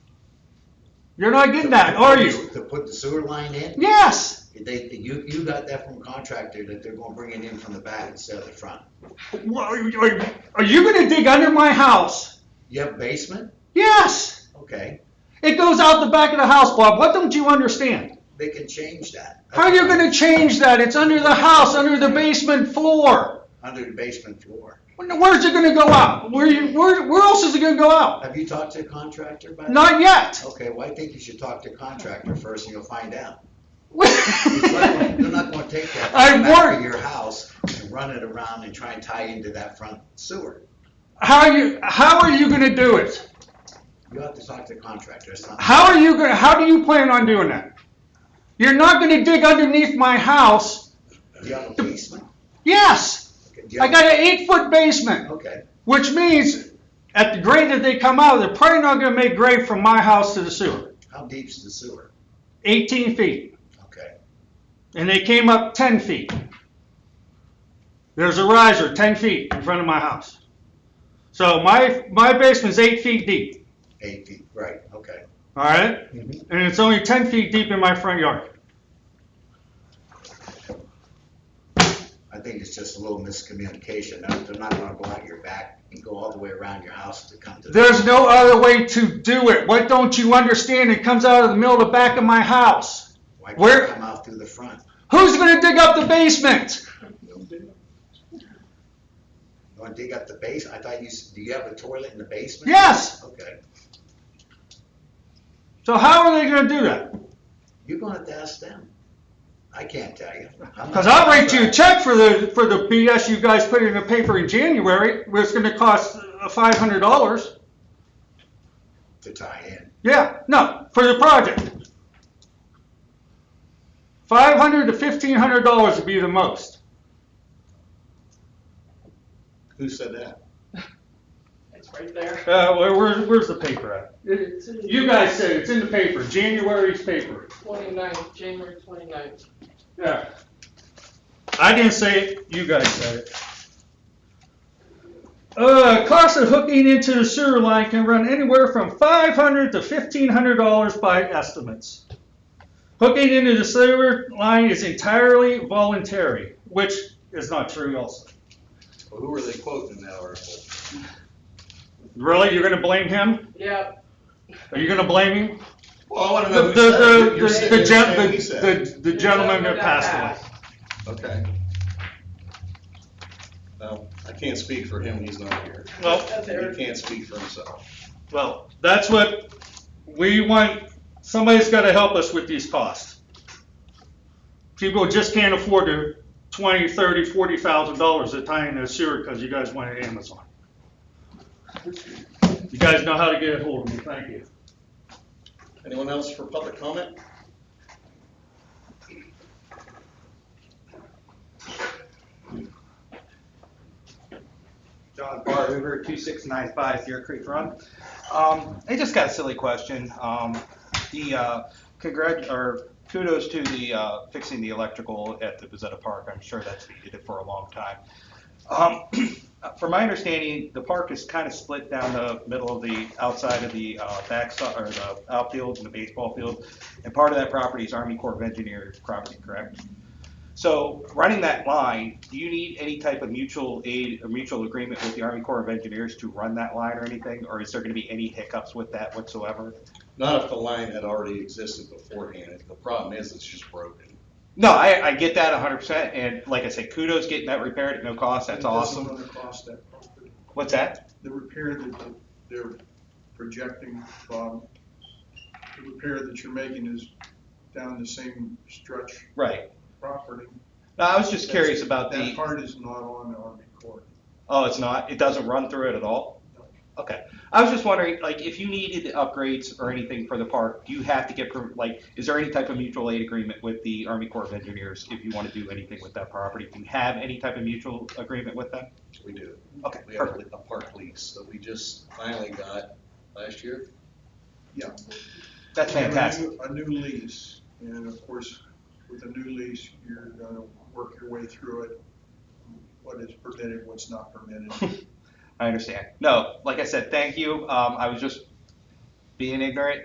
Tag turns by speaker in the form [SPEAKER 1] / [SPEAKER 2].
[SPEAKER 1] You're not getting that, are you?
[SPEAKER 2] To put the sewer line in,
[SPEAKER 1] Yes.
[SPEAKER 2] they, you, you got that from contractor that they're gonna bring it in from the back instead of the front.
[SPEAKER 1] Wha- Are you, are you gonna dig under my house?
[SPEAKER 2] You have a basement?
[SPEAKER 1] Yes.
[SPEAKER 2] Okay,
[SPEAKER 1] It goes out the back of the house, Bob. What don't you understand?
[SPEAKER 2] they can change that.
[SPEAKER 1] How are you gonna change that? It's under the house, under the basement floor.
[SPEAKER 2] Under the basement floor.
[SPEAKER 1] When- Where's it gonna go out? Where you, where, where else is it gonna go out?
[SPEAKER 2] Have you talked to a contractor about?
[SPEAKER 1] Not yet.
[SPEAKER 2] Okay, well, I think you should talk to a contractor first and you'll find out. They're
[SPEAKER 1] I
[SPEAKER 2] not gonna take that
[SPEAKER 1] I
[SPEAKER 2] from the back
[SPEAKER 1] work-
[SPEAKER 2] of your house and run it around and try and tie into that front sewer.
[SPEAKER 1] How are you, how are you gonna do it?
[SPEAKER 2] You have to talk to the contractor, it's not.
[SPEAKER 1] How are you gonna, how do you plan on doing that? You're not gonna dig underneath my house?
[SPEAKER 2] Do you have a basement?
[SPEAKER 1] Yes.
[SPEAKER 2] Okay, do you
[SPEAKER 1] I
[SPEAKER 2] have-
[SPEAKER 1] got an eight-foot basement,
[SPEAKER 2] Okay,
[SPEAKER 1] which means at the grade that they come out, they're probably not gonna make grade from my house to the sewer,
[SPEAKER 2] how deep's the sewer?
[SPEAKER 1] eighteen feet,
[SPEAKER 2] Okay,
[SPEAKER 1] and they came up ten feet. There's a riser ten feet in front of my house. So my, my basement's eight feet deep,
[SPEAKER 2] eight feet, right, okay.
[SPEAKER 1] all right? And it's only ten feet deep in my front yard.
[SPEAKER 2] I think it's just a little miscommunication, They're- they're not gonna go out your back and go all the way around your house to come to. the-
[SPEAKER 1] There's no other way to do it. What don't you understand? It comes out of the middle of the back of my house.
[SPEAKER 2] Why
[SPEAKER 1] where-
[SPEAKER 2] can't you come out through the front?
[SPEAKER 1] Who's going to dig up the basement?
[SPEAKER 2] You wanna dig up the base, I thought you, s- do you have a toilet in the basement?
[SPEAKER 1] Yes.
[SPEAKER 2] Okay,
[SPEAKER 1] So how are they going to do that?
[SPEAKER 2] you're gonna have to ask them. I can't tell you. I'm not-
[SPEAKER 1] Because I'll write you a check for the for the BS you guys put in the paper in January, where it's going to cost uh, five hundred dollars.
[SPEAKER 2] To tie in,
[SPEAKER 1] Yeah, no, for the project. Five hundred to fifteen hundred dollars would be the most.
[SPEAKER 2] who said that?
[SPEAKER 3] It's right there.
[SPEAKER 1] Uh, where, where's where's the paper at? You guys said it's in the paper, January's paper.
[SPEAKER 3] Twenty-ninth, January twenty-ninth.
[SPEAKER 1] Yeah. I didn't say it, you guys said it. Uh, cost of hooking into the sewer line can run anywhere from five hundred to fifteen hundred dollars by estimates. Hooking into the sewer line is entirely voluntary, which is not true also.
[SPEAKER 4] Well, who are they quoting in that article?
[SPEAKER 1] Really, you're gonna blame him?
[SPEAKER 3] Yeah,
[SPEAKER 1] Are you gonna blame him?
[SPEAKER 4] Well, I want to
[SPEAKER 1] The,
[SPEAKER 4] know who said it.
[SPEAKER 1] the, the,
[SPEAKER 4] You're
[SPEAKER 1] the,
[SPEAKER 4] saying-
[SPEAKER 1] the
[SPEAKER 4] you're
[SPEAKER 1] gen-
[SPEAKER 4] saying he said it.
[SPEAKER 1] the- the gentleman that passed away.
[SPEAKER 4] Okay. Well, I can't speak for him, he's not here.
[SPEAKER 1] Well,
[SPEAKER 4] He can't speak for himself.
[SPEAKER 1] Well, that's what we want, somebody's gotta help us with these costs. People just can't afford to twenty, thirty, forty thousand dollars to tie in a sewer because you guys want it Amazon. You guys know how to get a hold of me, thank you.
[SPEAKER 4] Anyone else for public comment?
[SPEAKER 5] John Bar Hoover, 2695 Deer Creek Run. Um, I just got a silly question. Um, The, uh, congrat, or kudos to the uh, fixing the electrical at the Bezetta Park. I'm sure that's needed it for a long time. Um, From my understanding, the park is kind of split down the middle of the, outside of the uh, backside, or the outfield and the baseball field. And part of that property is Army Corps of Engineers property, correct? So running that line, do you need any type of mutual aid, or mutual agreement with the Army Corps of Engineers to run that line or anything? Or is there gonna be any hiccups with that whatsoever?
[SPEAKER 4] Not if the line had already existed beforehand. The problem is, it's just broken.
[SPEAKER 5] No, I, I get that hundred percent, and like I said, kudos getting that repaired at no cost, that's
[SPEAKER 6] It
[SPEAKER 5] awesome.
[SPEAKER 6] doesn't run across that property.
[SPEAKER 5] What's that?
[SPEAKER 6] The repair that the- they're projecting from, the repair that you're making is down the same stretch
[SPEAKER 5] Right.
[SPEAKER 6] property.
[SPEAKER 5] No, I was just curious about
[SPEAKER 6] That
[SPEAKER 5] the,
[SPEAKER 6] part is not on the Army Corps.
[SPEAKER 5] oh, it's not, it doesn't run through it at all? Okay, I was just wondering, like, if you needed upgrades or anything for the park, do you have to get, per- like, is there any type of mutual aid agreement with the Army Corps of Engineers if you wanna do anything with that property? Do you have any type of mutual agreement with them?
[SPEAKER 4] We do.
[SPEAKER 5] Okay,
[SPEAKER 4] We have a park lease that we just finally got last year.
[SPEAKER 6] Yeah.
[SPEAKER 5] That's fantastic.
[SPEAKER 6] A new a new lease, and of course, with a new lease, you're gonna work your way through it, what is permitted, what's not permitted.
[SPEAKER 5] I understand. No, like I said, thank you. Um, I was just being ignorant